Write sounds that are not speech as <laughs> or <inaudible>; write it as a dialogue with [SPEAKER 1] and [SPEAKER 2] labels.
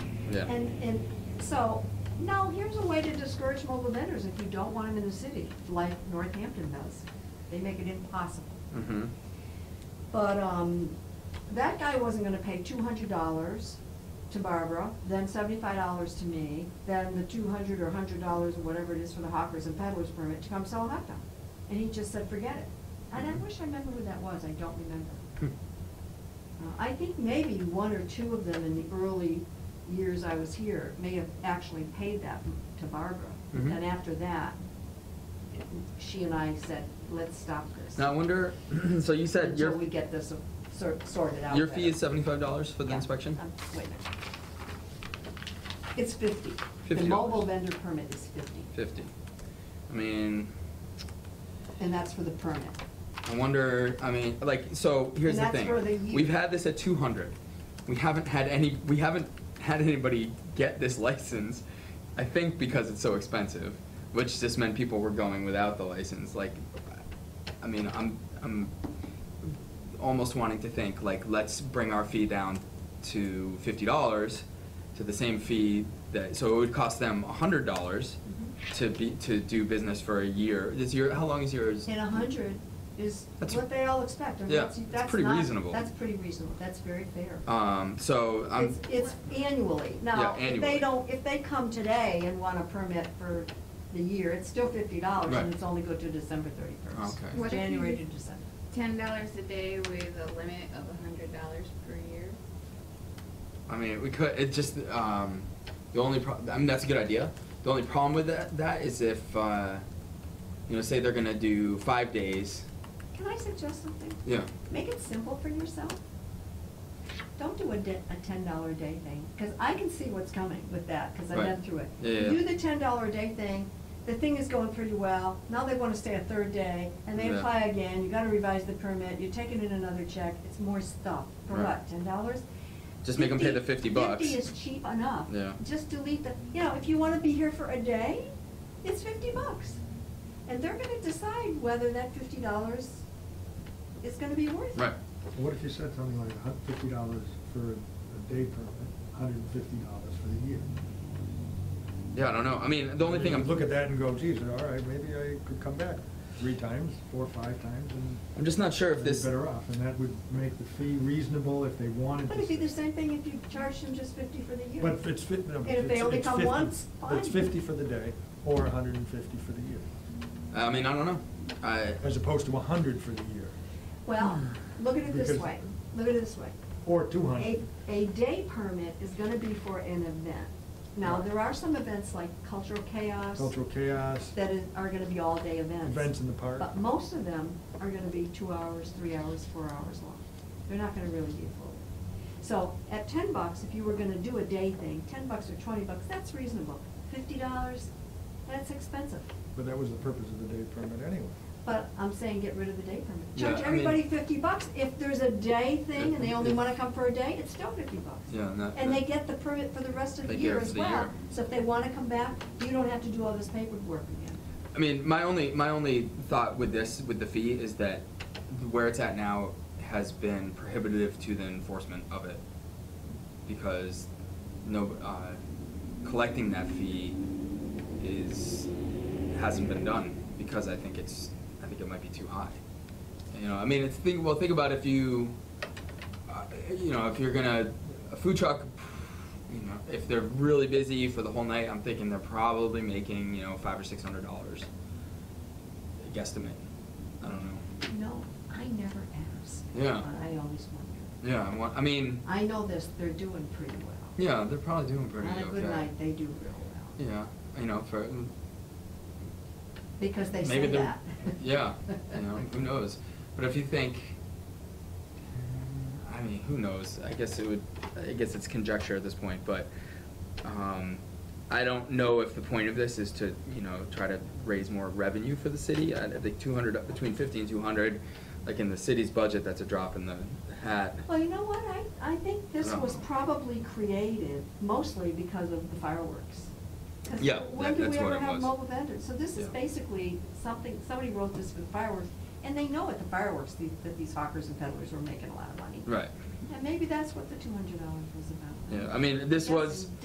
[SPEAKER 1] Yeah.
[SPEAKER 2] And, and, so, no, here's a way to discourage mobile vendors if you don't want them in the city, like Northampton does. They make it impossible.
[SPEAKER 1] Mm-hmm.
[SPEAKER 2] But, um, that guy wasn't gonna pay two hundred dollars to Barbara, then seventy-five dollars to me, then the two hundred or hundred dollars or whatever it is for the hawkers and peddlers permit to come sell a hot dog. And he just said, forget it. And I wish I remember who that was, I don't remember. Uh, I think maybe one or two of them in the early years I was here may have actually paid that to Barbara.
[SPEAKER 1] Mhm.
[SPEAKER 2] And after that, she and I said, let's stop this.
[SPEAKER 1] Now I wonder, <clears throat> so you said your,
[SPEAKER 2] Until we get this sor- sorted out.
[SPEAKER 1] your fee
[SPEAKER 2] better.
[SPEAKER 1] is seventy-five dollars for the
[SPEAKER 2] Yeah.
[SPEAKER 1] inspection?
[SPEAKER 2] Um, Wait a minute. It's fifty. The
[SPEAKER 1] $50.
[SPEAKER 2] mobile vendor permit is fifty,
[SPEAKER 1] Fifty. I mean,
[SPEAKER 2] and that's for the permit.
[SPEAKER 1] I wonder, I mean, like, so here's the
[SPEAKER 2] And that's
[SPEAKER 1] thing.
[SPEAKER 2] for the year.
[SPEAKER 1] We've had this at two hundred. We haven't had any, we haven't had anybody get this license, I think because it's so expensive, which just meant people were going without the license, like, I mean, I'm, I'm almost wanting to think, like, let's bring our fee down to fifty dollars, to the same fee that, so it would cost them a hundred dollars
[SPEAKER 2] Mm-hmm.
[SPEAKER 1] to be, to do business for a year. Is your, how long is yours?
[SPEAKER 2] And a hundred is
[SPEAKER 1] That's-
[SPEAKER 2] what they all expect. and
[SPEAKER 1] Yeah,
[SPEAKER 2] that's-
[SPEAKER 1] it's
[SPEAKER 2] that's
[SPEAKER 1] pretty
[SPEAKER 2] not-
[SPEAKER 1] reasonable.
[SPEAKER 2] That's pretty reasonable, that's very fair.
[SPEAKER 1] Um, so I'm,
[SPEAKER 2] It's, it's annually. Now,
[SPEAKER 1] Yeah,
[SPEAKER 2] if
[SPEAKER 1] annually.
[SPEAKER 2] they don't, if they come today and want a permit for the year, it's still fifty dollars,
[SPEAKER 1] Right.
[SPEAKER 2] and it's only go to December thirty-first.
[SPEAKER 1] Okay.
[SPEAKER 3] What if you
[SPEAKER 2] January to
[SPEAKER 3] did-
[SPEAKER 2] December.
[SPEAKER 3] Ten dollars a day with a limit of a hundred dollars per year.
[SPEAKER 1] I mean, we could, it just, um, the only pro, I mean, that's a good idea. The only problem with that, that is if, uh, you know, say they're gonna do five days,
[SPEAKER 2] Can I suggest something?
[SPEAKER 1] yeah.
[SPEAKER 2] Make it simple for yourself. Don't do a di- a ten dollar a day thing, because I can see what's coming with that, because I've
[SPEAKER 1] Right.
[SPEAKER 2] been through it.
[SPEAKER 1] Yeah, yeah,
[SPEAKER 2] You Do
[SPEAKER 1] yeah.
[SPEAKER 2] the ten dollar a day thing, the thing is going pretty well, now they wanna stay a third day, and they
[SPEAKER 1] Yeah.
[SPEAKER 2] apply again, you gotta revise the permit, you're taking in another check, it's more stuff. For
[SPEAKER 1] Right.
[SPEAKER 2] what, ten dollars?
[SPEAKER 1] Just make 'em pay the 50 bucks.
[SPEAKER 2] Fifty is cheap enough.
[SPEAKER 1] Yeah.
[SPEAKER 2] Just delete the, you know, if you wanna be here for a day, it's fifty bucks. And they're gonna decide whether that fifty dollars is gonna be worth it.
[SPEAKER 1] Right,
[SPEAKER 4] What if you said something like a hun- fifty dollars for a a day permit, hundred and fifty dollars for the year?
[SPEAKER 1] yeah, I don't know, I mean, the only thing I'm.
[SPEAKER 4] Look at that and go, geez, all right, maybe I could come back three times, four, five times, and.
[SPEAKER 1] I'm just not sure if
[SPEAKER 4] I'd be
[SPEAKER 1] this-
[SPEAKER 4] Better off, and that would make the fee reasonable if they wanted to.
[SPEAKER 2] But it'd be the same thing if you charged them just fifty for the year.
[SPEAKER 4] But it's fit, no,
[SPEAKER 2] And
[SPEAKER 4] it's-
[SPEAKER 2] if they only
[SPEAKER 4] it's
[SPEAKER 2] come
[SPEAKER 4] 50.
[SPEAKER 2] once, fine.
[SPEAKER 4] It's fifty for the day, or hundred and fifty for the year,
[SPEAKER 1] I mean, I don't know, I,
[SPEAKER 4] as opposed to hundred for the year,
[SPEAKER 2] Well, look at it this
[SPEAKER 4] Because-
[SPEAKER 2] way, look at it this way.
[SPEAKER 4] or two
[SPEAKER 2] A,
[SPEAKER 4] hundred.
[SPEAKER 2] a day permit is gonna be for an event. Now, there are some events like cultural chaos.
[SPEAKER 4] Cultural chaos,
[SPEAKER 2] That is, are gonna be all-day events.
[SPEAKER 4] Events in the park.
[SPEAKER 2] But most of them are gonna be two hours, three hours, four hours long. They're not gonna really be full. So at ten bucks, if you were gonna do a day thing, ten bucks or twenty bucks, that's reasonable. Fifty dollars, that's expensive.
[SPEAKER 4] but that was the purpose of the day permit anyway.
[SPEAKER 2] But I'm saying get rid of the day permit.
[SPEAKER 1] Yeah,
[SPEAKER 2] Charge
[SPEAKER 1] I mean-
[SPEAKER 2] everybody fifty bucks. If there's a day thing and they only
[SPEAKER 1] Yeah.
[SPEAKER 2] wanna come for a day, it's still fifty bucks.
[SPEAKER 1] Yeah, and that-
[SPEAKER 2] And they
[SPEAKER 1] that-
[SPEAKER 2] get the permit for the rest of the
[SPEAKER 1] They get
[SPEAKER 2] year
[SPEAKER 1] it for
[SPEAKER 2] as
[SPEAKER 1] the
[SPEAKER 2] well.
[SPEAKER 1] year.
[SPEAKER 2] So if they wanna come back, you don't have to do all this paperwork again.
[SPEAKER 1] I mean, my only my only thought with this with the fee is that where it's at now has been prohibitive to the enforcement of it because no uh, collecting that fee is hasn't been done because I think it's I think it might be too high. You know, I mean, it's think well think about if you uh, you know if you're gonna a food truck you know, if they're really busy for the whole night, I'm thinking they're probably making, you know, five or six hundred dollars. Guesstimate. I don't know.
[SPEAKER 2] No, I never ask.
[SPEAKER 1] Yeah.
[SPEAKER 2] But I always wonder.
[SPEAKER 1] Yeah, I want, I mean,
[SPEAKER 2] I know this, they're doing pretty well.
[SPEAKER 1] yeah, they're probably doing pretty okay.
[SPEAKER 2] On a good night, they do real well.
[SPEAKER 1] Yeah, you know, for,
[SPEAKER 2] Because they say
[SPEAKER 1] Maybe they're-
[SPEAKER 2] that.
[SPEAKER 1] <laughs> yeah, you know,
[SPEAKER 2] <laughs>
[SPEAKER 1] who knows? But if you think, I mean, who knows? I guess it would. I guess it's conjecture at this point, but um, I don't know if the point of this is to, you know, try to raise more revenue for the city. I I think two hundred between fifty and two hundred, like in the city's budget, that's a drop in the hat.
[SPEAKER 2] Well, you know what, I, I think this
[SPEAKER 1] Yeah.
[SPEAKER 2] was probably created mostly because of the fireworks. 'Cause
[SPEAKER 1] Yeah, that-
[SPEAKER 2] When
[SPEAKER 1] that's
[SPEAKER 2] do
[SPEAKER 1] what
[SPEAKER 2] we ever
[SPEAKER 1] it was.
[SPEAKER 2] have mobile vendors? So this is
[SPEAKER 1] Yeah.
[SPEAKER 2] basically something, somebody wrote this for the fireworks, and they know at the fireworks the- that these hawkers and peddlers were making a lot of money.
[SPEAKER 1] Right.
[SPEAKER 2] And maybe that's what the two hundred dollars was about.
[SPEAKER 1] Yeah, I mean, this
[SPEAKER 2] That's
[SPEAKER 1] was-